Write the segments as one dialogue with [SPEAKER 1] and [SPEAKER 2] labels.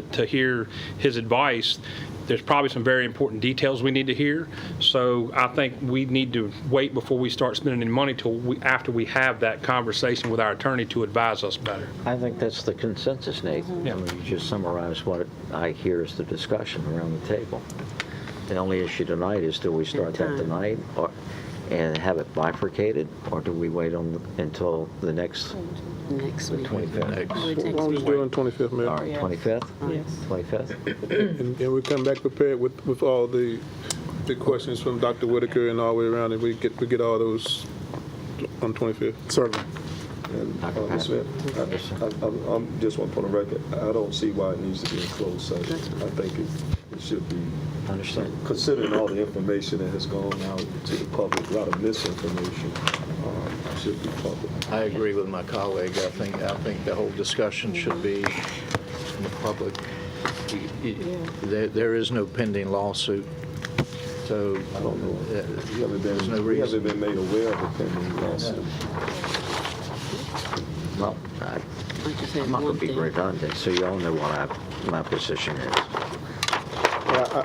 [SPEAKER 1] to hear his advice, there's probably some very important details we need to hear. So I think we need to wait before we start spending any money till we, after we have that conversation with our attorney to advise us better.
[SPEAKER 2] I think that's the consensus, Nate. I mean, you just summarized what I hear is the discussion around the table. The only issue tonight is do we start that
[SPEAKER 3] time.
[SPEAKER 2] tonight or, and have it bifurcated? Or do we wait on, until the next,
[SPEAKER 3] Next week.
[SPEAKER 2] 25th.
[SPEAKER 3] Probably next
[SPEAKER 4] Why don't we
[SPEAKER 3] week.
[SPEAKER 4] just do it on 25th,
[SPEAKER 2] all
[SPEAKER 4] Mayor?
[SPEAKER 2] right, 25th?
[SPEAKER 3] Yes.
[SPEAKER 2] 25th?
[SPEAKER 4] And and we come back prepared with, with all the, the questions from Dr. Whitaker and all the way around, and we get, we get all those on 25th.
[SPEAKER 5] Certainly.
[SPEAKER 2] Dr.
[SPEAKER 6] Ms.
[SPEAKER 2] Patrick?
[SPEAKER 6] Smith, I- I- I'm I'm just want to put on record, I don't see why it needs to be in closed session. I think it- it should be,
[SPEAKER 2] Understood.
[SPEAKER 6] considering all the information that has gone out to the public, a lot of misinformation, um, it should be public.
[SPEAKER 5] I agree with my colleague. I think, I think the whole discussion should be in the public. You- you- There, there is no pending lawsuit, so
[SPEAKER 6] I don't know.
[SPEAKER 5] uh,
[SPEAKER 6] We haven't
[SPEAKER 5] there's no
[SPEAKER 6] been, we
[SPEAKER 5] reason.
[SPEAKER 6] haven't been made aware of the pending lawsuit.
[SPEAKER 2] Well, I-
[SPEAKER 3] I just
[SPEAKER 2] I'm
[SPEAKER 3] have
[SPEAKER 2] not going
[SPEAKER 3] one
[SPEAKER 2] to be
[SPEAKER 3] thing.
[SPEAKER 2] redundant, so you all know what I- my position is.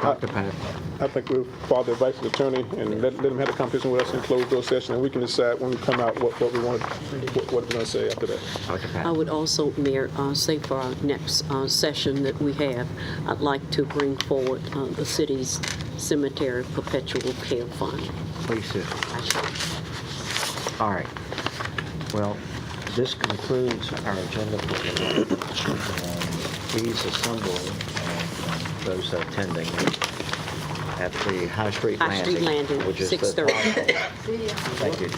[SPEAKER 2] Dr. Patrick?
[SPEAKER 4] I think we'll follow the advice of the attorney and let, let him have a conversation with us in closed door session, and we can decide when we come out what, what we want, what what we're gonna say after that.
[SPEAKER 2] Dr.
[SPEAKER 3] I
[SPEAKER 2] Patrick?
[SPEAKER 3] would also, Mayor, uh, say for our next uh, session that we have, I'd like to bring forward uh, the city's cemetery perpetual care fund.
[SPEAKER 2] Please do. All right. Well, this concludes our agenda for tonight. Um, Please assemble uh, those attending at the High Street
[SPEAKER 3] High
[SPEAKER 2] Landing.
[SPEAKER 3] Street Landing,
[SPEAKER 2] which is the-
[SPEAKER 3] 6:30.
[SPEAKER 2] Thank you.